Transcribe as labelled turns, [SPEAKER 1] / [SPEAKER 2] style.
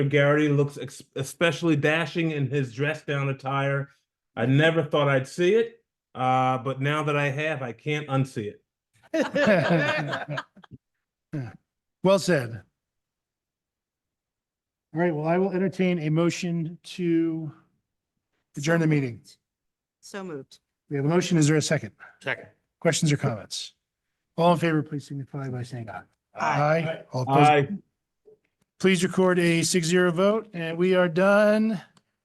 [SPEAKER 1] Garrity looks ex- especially dashing in his dress down attire. I never thought I'd see it, uh, but now that I have, I can't unsee it.
[SPEAKER 2] Well said. All right, well, I will entertain a motion to adjourn the meeting.
[SPEAKER 3] So moved.
[SPEAKER 2] We have a motion. Is there a second?
[SPEAKER 4] Second.
[SPEAKER 2] Questions or comments? All in favor, please signify by saying aye.
[SPEAKER 3] Aye.
[SPEAKER 2] All opposed,
[SPEAKER 1] I
[SPEAKER 2] please record a six zero vote and we are done